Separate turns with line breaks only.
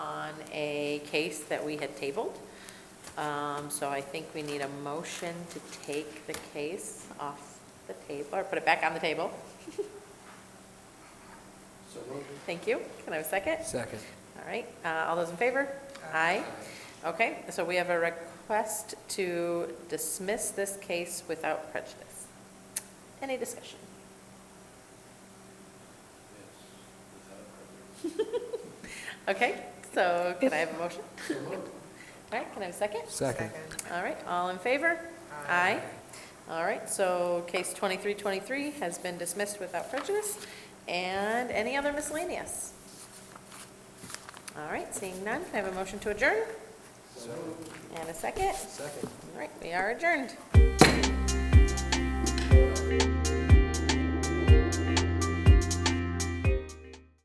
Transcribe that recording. a case that we had tabled. Um, So I think we need a motion to take the case off the table, or put it back on the table.
So moved.
Thank you. Can I have a second?
Second.
All right, uh, all those in favor? Aye. Okay, so we have a request to dismiss this case without prejudice. Any discussion?
Yes.
Okay, so can I have a motion? All right, can I have a second?
Second.
All right, all in favor? Aye. All right, so case 2323 has been dismissed without prejudice. And any other miscellaneous? All right, seeing none, can I have a motion to adjourn?
So moved.
And a second?
Second.
All right, we are adjourned.